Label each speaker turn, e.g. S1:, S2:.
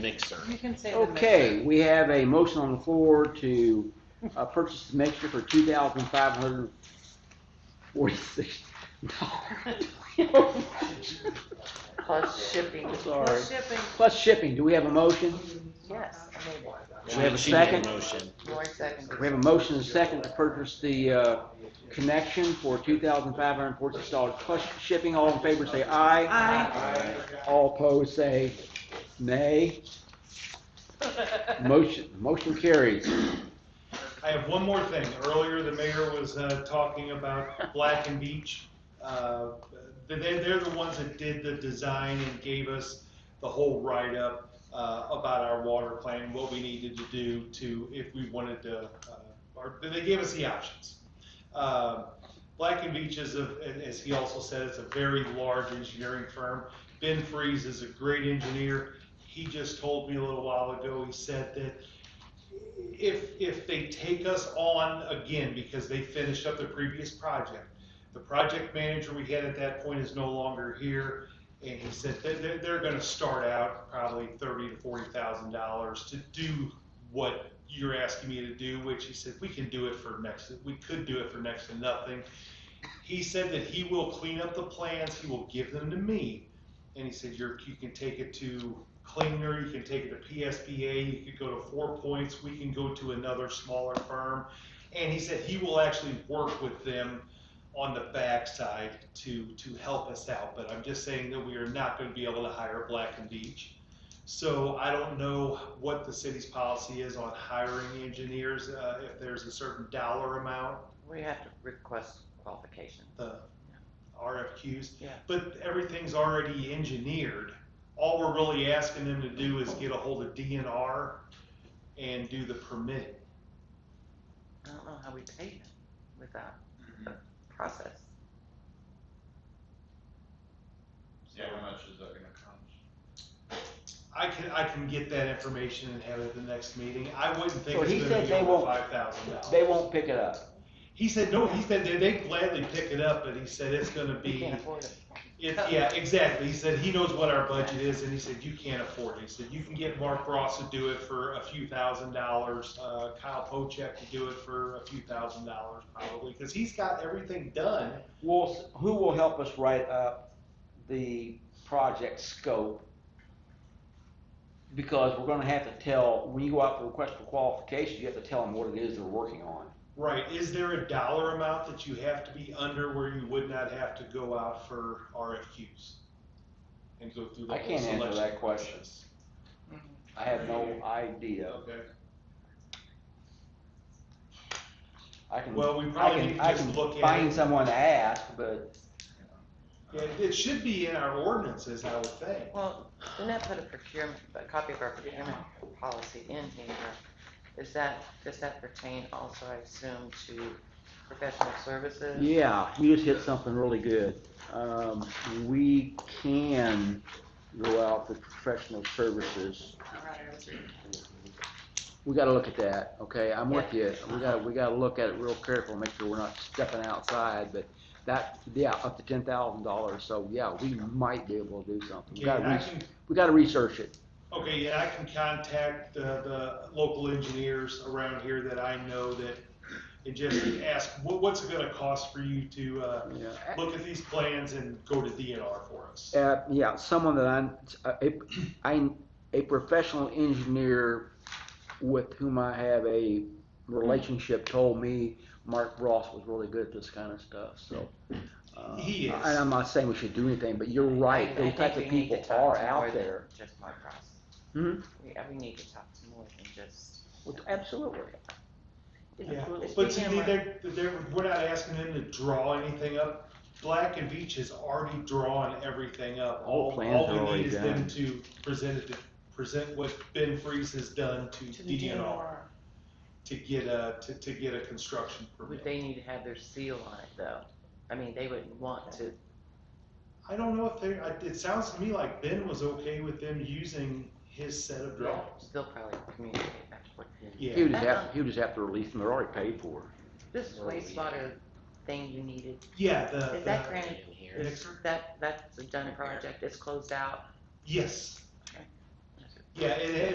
S1: mixer.
S2: You can say the
S3: Okay,
S2: mixer.
S3: we have a motion on the floor to uh, purchase the mixture for two thousand five hundred forty-six dollars.
S4: Plus shipping.
S3: Sorry.
S2: Shipping,
S3: Plus shipping, do we have a motion?
S4: Yes, I made it.
S3: We have a
S1: She made
S3: second.
S1: motion.
S4: Lori seconded.
S3: We have a motion and a second to purchase the uh, connection for two thousand five hundred forty-six dollars plus shipping. All in favor, say aye.
S2: Aye.
S3: All opposed, say nay. Motion, motion carries.
S5: I have one more thing. Earlier, the mayor was uh, talking about Black and Beach. Uh, they, they're the ones that did the design and gave us the whole write-up uh, about our water plan, what we needed to do to, if we wanted to, uh, or they gave us the options. Uh, Black and Beach is, a, and as he also said, it's a very large engineering firm. Ben Freeze is a great engineer. He just told me a little while ago, he said that if if they take us on again because they finished up the previous project, the project manager we had at that point is no longer here, and he said that they're, they're going to start out probably thirty to forty thousand dollars to do what you're asking me to do, which he said we can do it for next. We could do it for next to nothing. He said that he will clean up the plans. He will give them to me, and he said you're, you can take it to Klinger, you can take it to PSBA, you could go to Four Points, we can go to another smaller firm. And he said he will actually work with them on the backside to, to help us out, but I'm just saying that we are not gonna be able to hire Black and Beach. So I don't know what the city's policy is on hiring engineers, uh, if there's a certain dollar amount,
S4: We have to request qualification.
S5: the RFQs.
S4: Yeah.
S5: But everything's already engineered. All we're really asking them to do is get a hold of DNR and do the permitting.
S4: I don't know how we pay them without a process.
S6: See how much is that gonna come?
S5: I can, I can get that information and have it at the next meeting. I wouldn't think
S3: So he
S5: it's gonna
S3: said
S5: be
S3: they
S5: over
S3: won't-
S5: five thousand dollars.
S3: They won't pick it up.
S5: He said, no, he said they, they gladly pick it up, but he said it's gonna
S4: We
S5: be,
S4: can't afford it.
S5: it, yeah, exactly. He said he knows what our budget is and he said, you can't afford it. He said, you can get Mark Ross to do it for a few thousand dollars, uh, Kyle Pochek to do it for a few thousand dollars probably, cause he's got everything done.
S3: will, who will help us write up the project scope? Because we're gonna have to tell, when you go out for request for qualifications, you have to tell them what it is they're working on.
S5: Right, is there a dollar amount that you have to be under where you would not have to go out for RFQs? And go through the
S3: I
S5: whole
S3: can't answer
S5: selection
S3: that question.
S5: process?
S3: I have no idea.
S5: Okay.
S3: I can,
S5: Well, we
S3: I
S5: probably need
S3: can,
S5: to
S3: I
S5: just
S3: can
S5: look at
S3: find
S5: it.
S3: someone to ask, but
S5: Yeah, it should be in our ordinances, I would think.
S4: Well, didn't that put a procurement, a copy of our procurement policy in here? Is that, does that pertain also, I assume, to professional services?
S3: yeah, you just hit something really good. Um, we can go out for professional services. We gotta look at that, okay, I'm with you, we gotta, we gotta look at it real careful, make sure we're not stepping outside, but that, yeah, up to ten thousand dollars, so yeah, we might be able to do something. We
S5: Okay, and
S3: gotta,
S5: I
S3: res-
S5: can,
S3: we gotta research it,
S5: okay, yeah, I can contact the, the local engineers around here that I know that, and just ask, what, what's it gonna cost for you to, uh,
S3: yeah.
S5: look at these plans and go to DNR for us?
S3: Uh, yeah, someone that I'm, uh, a, I, a professional engineer with whom I have a relationship told me Mark Ross was really good at this kind of stuff, so. uh,
S5: He is.
S3: And I'm not saying we should do anything, but you're
S4: I- I
S3: right, those
S4: think
S3: types of
S4: we need to
S3: people
S4: talk
S3: are
S4: to more
S3: out
S4: than
S3: there.
S4: Just Mark Ross.
S3: Hmm?
S4: We, uh, we need to talk to more than just.
S3: Well, Absolutely.
S5: Yeah,
S4: It's
S5: but see,
S4: being
S5: they
S4: like-
S5: they're, they're, we're not asking them to draw anything up. Black and Beach has already drawn everything up.
S3: All
S5: All,
S3: plans are
S5: all we
S3: already
S5: need is
S3: done.
S5: them to present it, to present what Ben Freeze has done to
S2: to the
S5: DNR
S2: DNR.
S5: to get a, to, to get a construction
S4: Would
S5: permit.
S4: they need to have their seal on it though? I mean, they wouldn't want to,
S5: I don't know if they, I- it sounds to me like Ben was okay with them using his set of drawings.
S4: they'll probably communicate back and forth.
S3: He
S5: Yeah,
S3: would just have, he would just have to release them, they're already paid for.
S4: This wastewater thing you needed,
S5: yeah, the,
S4: is that
S5: the,
S1: In
S4: granted?
S1: here.
S5: Yeah.
S4: Is that, that's a done project, it's closed out?
S5: yes. Yeah, it,